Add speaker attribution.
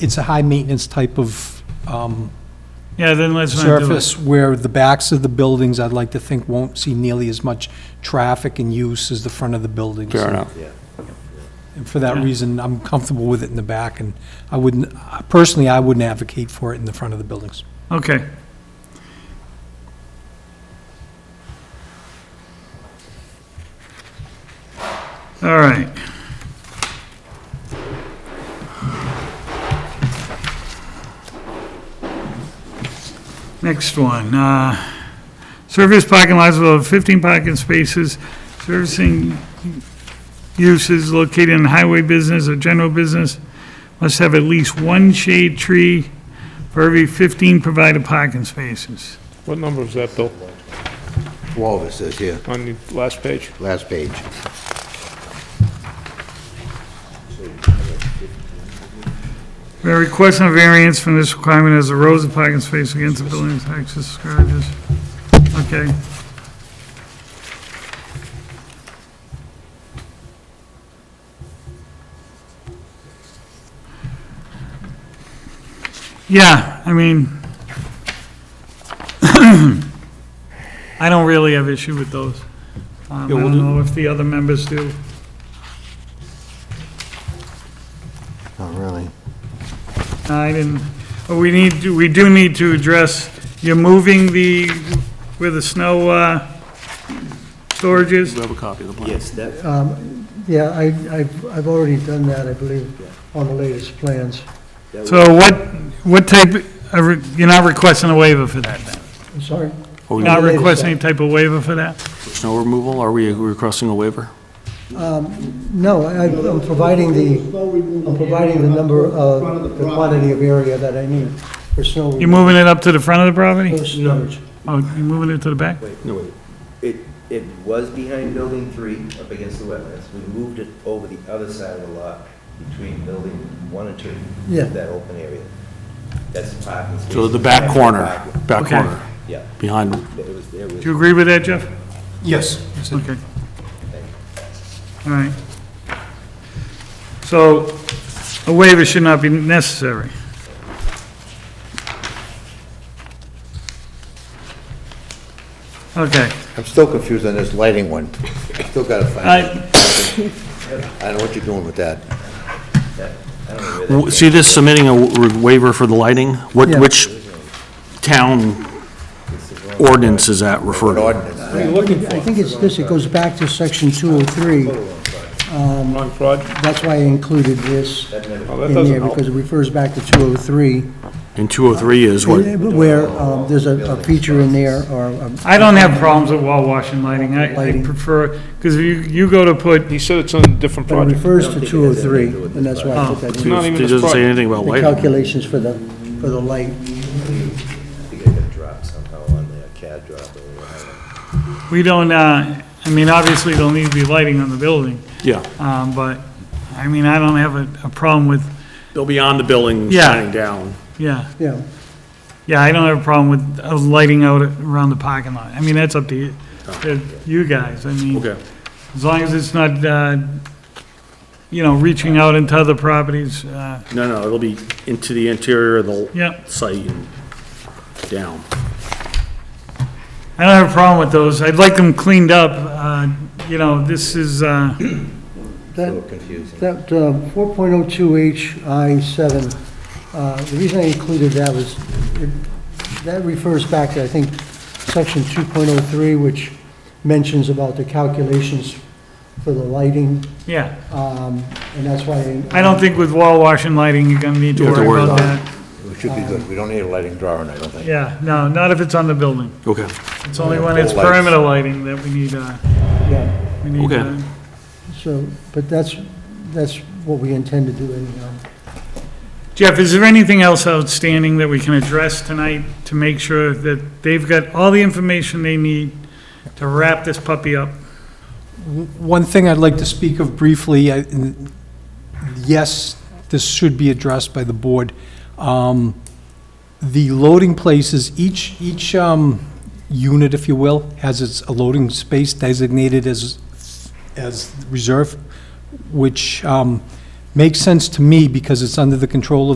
Speaker 1: it's a high-maintenance type of um,
Speaker 2: Yeah, then let's not do it.
Speaker 1: surface where the backs of the buildings, I'd like to think, won't see nearly as much traffic and use as the front of the buildings.
Speaker 3: Fair enough.
Speaker 1: And for that reason, I'm comfortable with it in the back, and I wouldn't, personally, I wouldn't advocate for it in the front of the buildings.
Speaker 2: Okay. All right. Next one, uh, service parking lots will have 15 parking spaces, servicing uses located in highway business or general business must have at least one shade tree for every 15 provided parking spaces.
Speaker 4: What number is that, Bill?
Speaker 5: 12 it says here,
Speaker 4: On the last page?
Speaker 5: last page.
Speaker 2: We're requesting a variance from this requirement as the rows of parking space against the building's access garages. Okay. Yeah, I mean, I don't really have issue with those. Um, I
Speaker 1: Yeah, we'll
Speaker 2: don't
Speaker 1: do-
Speaker 2: know if the other members do.
Speaker 5: Not really.
Speaker 2: I didn't, but we need, to- we do need to address, you're moving the, where the snow, uh, storage is?
Speaker 3: have a copy of the plan?
Speaker 6: Yes, that,
Speaker 7: Yeah, I, I've, I've already done that, I believe, on the latest plans.
Speaker 2: So what, what type, of re- you're not requesting a waiver for that then?
Speaker 7: I'm sorry,
Speaker 3: Are
Speaker 2: You're
Speaker 3: we-
Speaker 2: Not requesting any type of waiver for that?
Speaker 3: Snow removal, are we requesting a waiver?
Speaker 7: no, I- I'm providing the, I'm providing the number of, the quantity of area that I need for snow.
Speaker 2: You're moving it up to the front of the property?
Speaker 7: For storage.
Speaker 2: Oh, you're moving it to the back?
Speaker 6: it, it was behind building three, up against the wetlands. We moved it over the other side of the lot, between building one and two.
Speaker 7: Yeah.
Speaker 6: That open area. That's the parking space.
Speaker 3: So the back corner, back
Speaker 2: Okay.
Speaker 3: corner,
Speaker 6: Yeah,
Speaker 3: behind,
Speaker 6: it was, it was.
Speaker 2: Do you agree with that, Jeff?
Speaker 1: Yes.
Speaker 2: Okay. All right. So a waiver should not be necessary. Okay.
Speaker 5: I'm still confused on this lighting one. Still gotta find,
Speaker 2: I-
Speaker 5: I don't know what you're doing with that.
Speaker 3: W- see this submitting a w- waiver for the lighting? What,
Speaker 7: Yeah.
Speaker 3: which town ordinance is that referred
Speaker 5: An
Speaker 3: to?
Speaker 5: ordinance.
Speaker 7: I think it's this, it goes back to section 203,
Speaker 4: Wrong project?
Speaker 7: that's why I included this
Speaker 4: Oh, that
Speaker 7: in
Speaker 4: doesn't
Speaker 7: here,
Speaker 4: help.
Speaker 7: because it refers back to 203,
Speaker 3: And 203 is what,
Speaker 7: where um, there's a a feature in there, or um,
Speaker 2: I don't have problems with wall washing lighting. I I
Speaker 7: Lighting.
Speaker 2: prefer, because you, you go to put,
Speaker 4: He said it's on a different
Speaker 7: but it
Speaker 4: project.
Speaker 7: refers to 203, and that's why I put that
Speaker 4: It's
Speaker 7: in.
Speaker 4: not
Speaker 3: it
Speaker 4: even
Speaker 3: doesn't
Speaker 4: this
Speaker 3: say
Speaker 4: project.
Speaker 3: anything about
Speaker 7: The
Speaker 3: lighting.
Speaker 7: calculations for the, for the light.
Speaker 6: I think I got dropped somehow on there, CAD drop or whatever.
Speaker 2: we don't, uh, I mean, obviously, there'll need to be lighting on the building,
Speaker 3: yeah.
Speaker 2: um, but, I mean, I don't have a, a problem with,
Speaker 3: They'll be on the building,
Speaker 2: Yeah.
Speaker 3: shining down.
Speaker 2: yeah.
Speaker 7: Yeah,
Speaker 2: Yeah, I don't have a problem with uh, lighting out around the parking lot. I mean, that's up to you, to you guys, I mean. As long as it's not, uh, you know, reaching out into other properties, uh,
Speaker 3: No, no, it'll be into the interior of the
Speaker 2: yeah.
Speaker 3: site and down.
Speaker 2: I don't have a problem with those. I'd like them cleaned up. Uh, You know, this is, uh,
Speaker 6: A
Speaker 7: that,
Speaker 6: little confusing.
Speaker 7: That uh, 4.02HI7, uh, the reason I included that was, it- that refers back to, I think, section 2.03, which mentions about the calculations for the lighting,
Speaker 2: yeah.
Speaker 7: um, and that's why.
Speaker 2: I don't think with wall washing lighting, you're gonna need to
Speaker 3: You have to
Speaker 2: worry
Speaker 3: worry
Speaker 2: about
Speaker 3: about
Speaker 2: that.
Speaker 5: We should be good. We don't need a lighting drawing, I don't think.
Speaker 2: Yeah, no, not if it's on the building.
Speaker 3: Okay.
Speaker 2: It's only when it's
Speaker 5: Lights.
Speaker 2: perimeter lighting that we need, uh,
Speaker 7: Yeah,
Speaker 2: we need,
Speaker 3: Okay.
Speaker 2: uh,
Speaker 7: so, but that's, that's what we intend to do anyhow.
Speaker 2: Jeff, is there anything else outstanding that we can address tonight to make sure that they've got all the information they need to wrap this puppy up?
Speaker 1: One thing I'd like to speak of briefly, I- and yes, this should be addressed by the board. Um, The loading places, each, each um, unit, if you will, has its loading space designated as, as reserve, which um, makes sense to me because it's under the control of